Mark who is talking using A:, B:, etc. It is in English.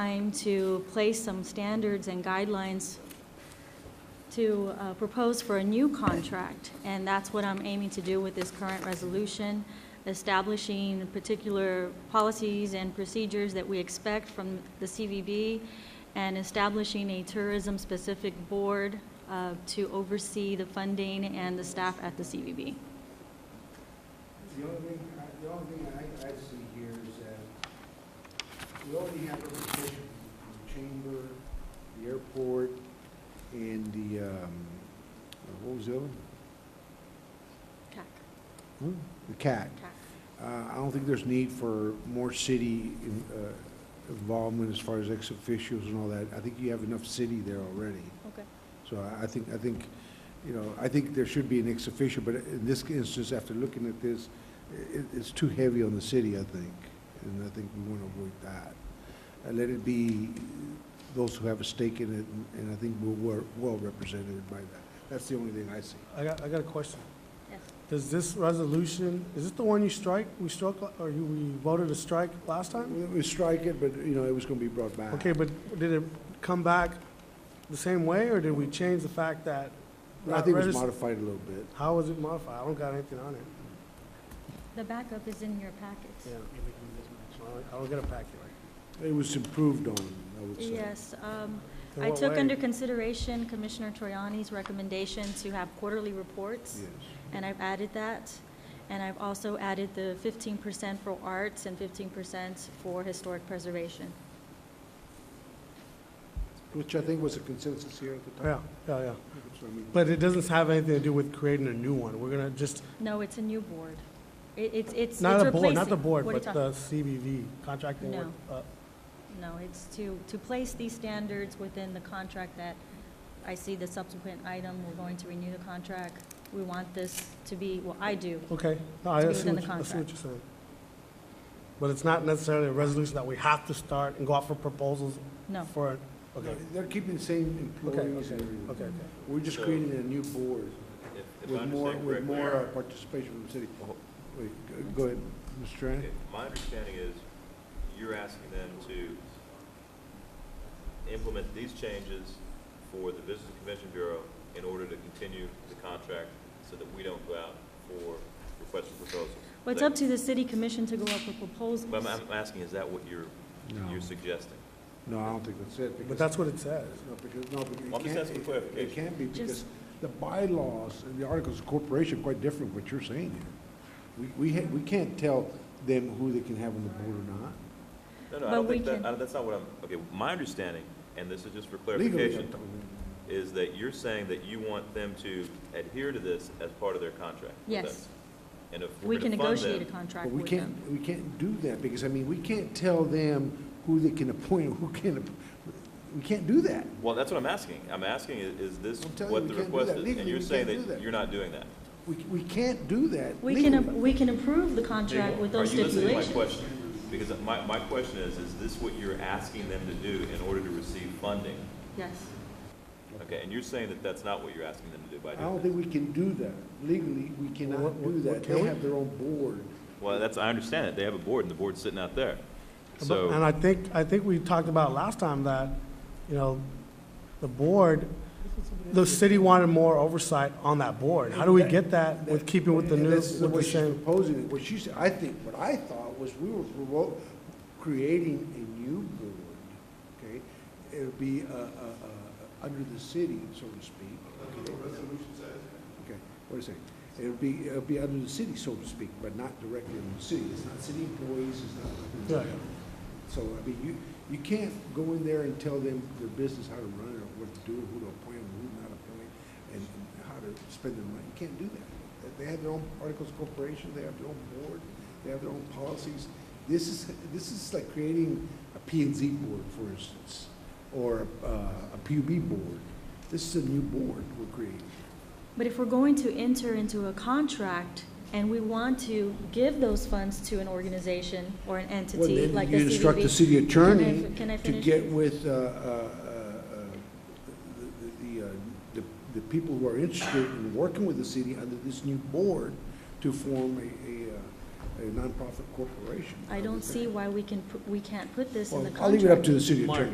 A: time to place some standards and guidelines to uh, propose for a new contract, and that's what I'm aiming to do with this current resolution, establishing particular policies and procedures that we expect from the CVB, and establishing a tourism-specific board uh, to oversee the funding and the staff at the CVB.
B: The only thing, the only thing I, I see here is that we already have representation from the chamber, the airport, and the, um, what was the other? one?
A: CAC,
B: Hmm? The CAC.
A: CAC.
B: Uh, I don't think there's need for more city in- uh, involvement as far as ex officios and all that. I think you have enough city there already.
A: Okay.
B: So I- I think, I think, you know, I think there should be an ex officio, but in this instance, after looking at this, it, it's too heavy on the city, I think, and I think we want to avoid that. And let it be those who have a stake in it, and- and I think we're well- well represented by that. That's the only thing I see.
C: I got, I got a question.
A: Yes.
C: Does this resolution, is this the one you strike, we struck, or you, we voted to strike last time?
B: We- We strike it, but, you know, it was going to be brought back.
C: Okay, but did it come back the same way, or did we change the fact that?
B: I think it was
C: that regis-
B: modified a little bit.
C: How was it modified? I don't got anything on it.
A: The backup is in your packets.
C: Yeah. I don't get a packet.
B: It was improved on, I would say.
A: Yes, um,
C: In
A: I
C: what
A: took
C: way?
A: under consideration Commissioner Troyani's recommendation to have quarterly reports,
B: Yes.
A: and I've added that. And I've also added the fifteen percent for arts and fifteen percent for historic preservation.
B: Which I think was a consensus here at the
C: Yeah,
B: time.
C: yeah, yeah.
B: So, I mean-
C: But it doesn't have anything to do with creating a new one. We're gonna just,
A: No, it's a new board. It, it's, it's.
C: not
A: it's
C: the board, not the
A: replacing-
C: board,
A: what are you
C: but
A: talking-
C: the CBV, contracting with, uh,
A: No, it's to, to place these standards within the contract that I see the subsequent item, we're going to renew the contract. We want this to be, well, I do,
C: Okay,
A: To
C: no, I
A: be
C: see
A: within
C: what,
A: the
C: you- I see what
A: contract.
C: you're saying. But it's not necessarily a resolution that we have to start and go out for proposals
A: no.
C: for,
B: No,
C: okay,
B: They're keeping the same
C: okay,
B: employees
C: okay,
B: and everything.
C: okay.
B: We're just
D: So-
B: creating a new board
D: If- if
B: with
D: I
B: more,
D: understand
B: with
D: correctly,
B: more uh, participation from the city.
D: Oh.
B: Wait, go- go ahead, Mr. Tran.
D: if My understanding is you're asking them to implement these changes for the Business and Convention Bureau in order to continue the contract so that we don't go out for requests for proposals.
A: Well, it's up to the city commission to go up with proposals.
D: But I'm, I'm asking, is that what you're,
B: No.
D: you're suggesting?
B: No, I don't think that's it. because-
C: But that's what it says.
B: No, because, no, because. it
D: Well, I'm just
B: can't-
D: asking
B: it- It
D: clarification.
B: can't be because
A: Just-
B: the bylaws and the articles of corporation are quite different from what you're saying here. We, we, ha- we can't tell them who they can have on the board or not.
D: No, no, I
A: But
D: don't
A: we
D: think that,
A: can-
D: I- that's not what I'm, okay, my understanding, and this is just for
B: Legally,
D: clarification,
B: I'm talking-
D: is that you're saying that you want them to adhere to this as part of their contract with
A: Yes.
D: us. And if
A: We
D: we're
A: can
D: going to fund them.
A: negotiate a contract
B: But we
A: with
B: can't,
A: them.
B: we can't do that, because, I mean, we can't tell them who they can appoint, and who can't, app- we can't do that.
D: Well, that's what I'm asking. I'm asking, i- is this
B: I'm telling you,
D: what
B: we
D: the
B: can't do
D: request
B: that.
D: is? And
B: Legally,
D: you're
B: we
D: saying
B: can't do
D: that
B: that.
D: you're not doing that?
B: We, we can't do that
A: We can, ap-
B: legally.
A: we can approve the contract with those
D: Are you listening to my
A: stipulations.
D: question? Because my, my question is, is this what you're asking them to do in order to receive funding?
A: Yes.
D: Okay, and you're saying that that's not what you're asking them to do by
B: I
D: doing
B: don't
D: this?
B: think we can do that. Legally, we
C: Well,
B: cannot
C: what-
B: do
C: what-
B: that.
C: can
B: They
C: we?
B: have their own board.
D: Well, that's, I understand it. They have a board, and the board's sitting out there.
C: But-
D: So.
C: And I think, I think we talked about last time that, you know, the board, the city wanted more oversight on that board. How do we get that with keeping with the
B: And
C: new,
B: that's
C: with the
B: what she's
C: same?
B: proposing, it. what she said, I think, what I thought was we were provo- creating a new board, okay? It would be, uh, uh, uh, under the city, so to speak. Okay, what is it? It would be, it would be under the city, so to speak, but not directly under the city. It's not city employees, it's not.
C: Yeah, yeah.
B: So, I mean, you, you can't go in there and tell them their business, how to run it, or what to do, who to appoint, who not to appoint, and how to spend their money. You can't do that. They have their own articles of corporation, they have their own board, they have their own policies. This is, this is like creating a P and Z board, for instance, or uh, a PUB board. This is a new board we're creating.
A: But if we're going to enter into a contract and we want to give those funds to an organization or an
B: Well,
A: entity
B: then
A: like the
B: You instruct the
A: CVB.
B: city attorney
A: Can I- can I
B: to
A: finish?
B: get with uh, uh, uh, the- the, uh, the the people who are interested in working with the city under this new board to form a- a, uh, a nonprofit corporation.
A: I don't see why we can, pu- we can't put this in
B: Well,
A: the contract.
B: I'll leave it up to the city
E: Mark,
B: attorney.